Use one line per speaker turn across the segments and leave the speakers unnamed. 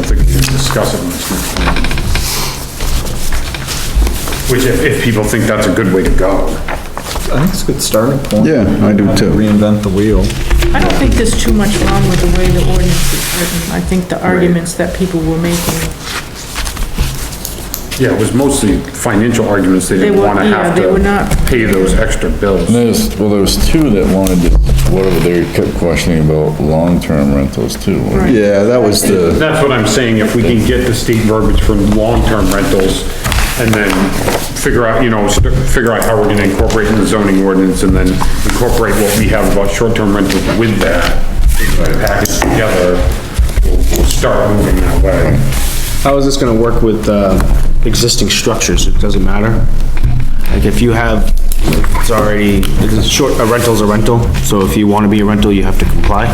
discuss it in this next meeting. Which if, if people think that's a good way to go.
I think it's a good starting point.
Yeah, I do
Not to
too.
Reinvent the wheel.
I don't think there's too much wrong with the way the ordinance is written. I think the arguments that people were making,
Yeah, it was mostly financial arguments. They didn't
were-
wanna
yeah,
have
they were not-
to pay those extra bills.
There's, well, there was two that wanted to, whatever, they kept questioning about long-term rentals too.
Right.
Yeah, that was the,
That's what I'm saying, if we can get the state verbiage for long-term rentals and then figure out, you know, st- figure out how we're gonna incorporate in the zoning ordinance and then incorporate what we have about short-term rentals with that, put it packaged together, we'll we'll start moving that way.
How is this gonna work with, uh, existing structures? It doesn't matter? Like, if you have, it's already, it's a short, a rental's a rental, so if you wanna be a rental, you have to comply?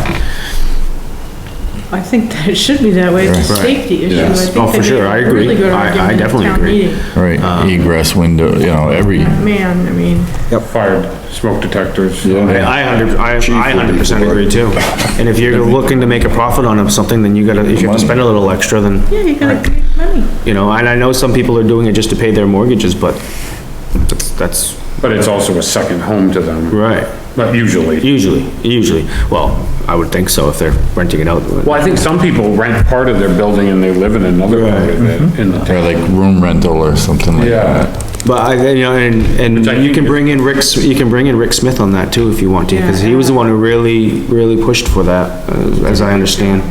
I think that it should be that way, it's a safety issue. I
Yes.
think
Oh, for
they
sure,
made a
I agree.
really good
I- I
argument at
definitely
town
agree.
meeting.
Right, egress window, you know, every,
Man, I mean,
Fired smoke detectors.
I I hundred, I, I hundred percent agree too. And if you're looking to make a profit on something, then you gotta, if you have to spend a little extra, then,
yeah, you gotta make money.
you know, and I know some people are doing it just to pay their mortgages, but that's, that's,
But it's also a second home to them,
right.
but usually.
Usually, usually. Well, I would think so if they're renting it out.
Well, I think some people rent part of their building and they live in another part of it in the town.
or like room rental or something like that.
Mm-hmm. Yeah,
But I, you know, and,
I
and you
think
can
is-
bring in Rick, S- you can bring in Rick Smith on that too if you want to, because he was the one who really, really pushed for that, uh, as I understand.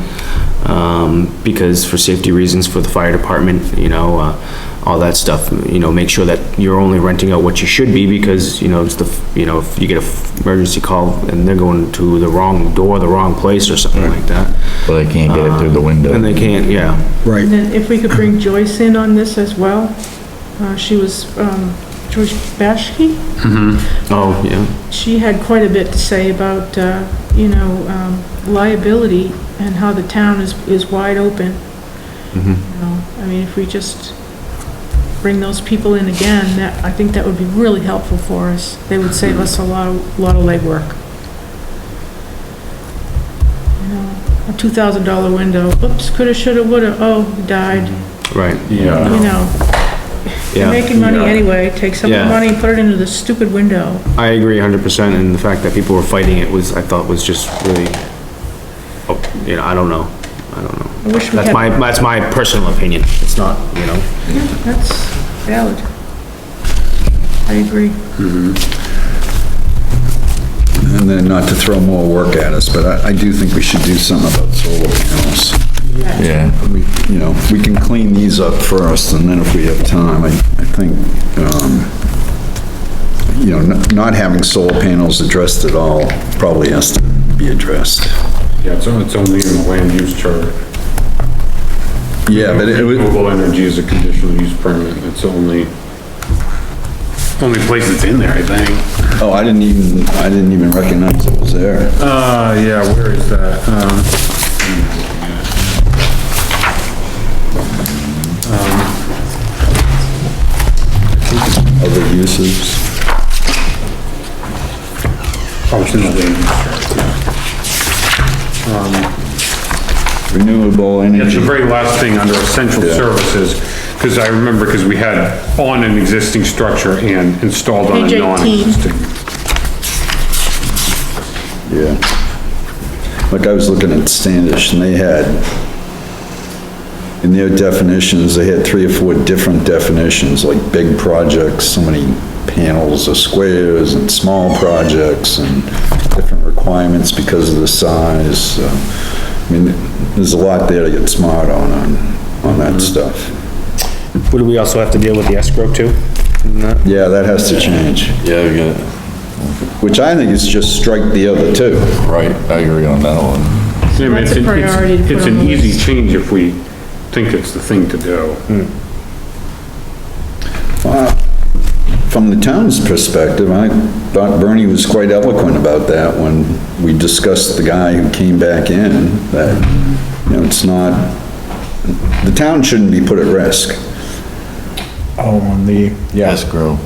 Um, because for safety reasons for the fire department, you know, uh, all that stuff, you know, make sure that you're only renting out what you should be because, you know, it's the, f- you know, if you get a f- emergency call and they're going to the wrong door, the wrong place or something like that.
But they can't get it through the window.
And they can't, yeah.
Right.
And then if we could bring Joyce in on this as well, uh, she was, um, Joyce Bashki?
Oh, yeah.
she had quite a bit to say about, uh, you know, um, liability and how the town is, is wide open.
Mm-hmm.
You know, I mean, if we just bring those people in again, that, I think that would be really helpful for us. They would save us a lot, of lot of legwork. You know, A two thousand dollar window, oops, coulda, shoulda, woulda, oh, died,
Right,
yeah.
you know. You're
yeah.
making money anyway, take some of the
Yeah.
money, put it into the stupid window.
I agree hundred percent, and the fact that people were fighting it was, I thought was just really, oh, you know, I don't know, I don't know.
I wish we
That's
had,
my, that's my personal opinion, it's not, you know.
That's valid. I agree.
and then not to throw more work at us, but I, I do think we should do something about solar panels.
Yeah,
We, you know, we can clean these up first, and then if we have time, I, I think, um, you know, not- not having solar panels addressed at all probably has to be addressed.
Yeah, it's on- it's only in the land use chart.
Yeah, but it would,
Renewable energy is a conditional use permit, it's the only, only place that's in there, I think.
oh, I didn't even, I didn't even recognize it was there.
Uh, yeah, where is that? Um,
Other uses.
Oh, it's in the land use chart.
Renewable
It's the
energy.
very last thing under essential services, because I remember, because we had on an existing structure and installed on
Page
a
18.
non-existing.
Yeah. Like I was looking at Standish and they had, in their definitions, they had three or four different definitions, like big projects, so many panels or squares and small projects and different requirements because of the size. so, I mean, there's a lot there to get smart on, on, on that stuff.
Would we also have to deal with the escrow too?
Yeah, that has to change,
yeah, we got it.
which I think is just strike the other two.
Right, I agree on that one.
I mean, it's
That's a
an- it's-
priority to put
It's
on
an
the
easy
list.
change if we think it's the thing to do.
From the town's perspective, I thought Bernie was quite eloquent about that when we discussed the guy who came back in, that, you know, it's not, the town shouldn't be put at risk.
Oh, on the, yeah,
Escrow,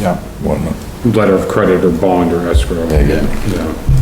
yeah.
whatnot.
Letter of credit or bond or escrow.
Yeah, yeah.
Yeah.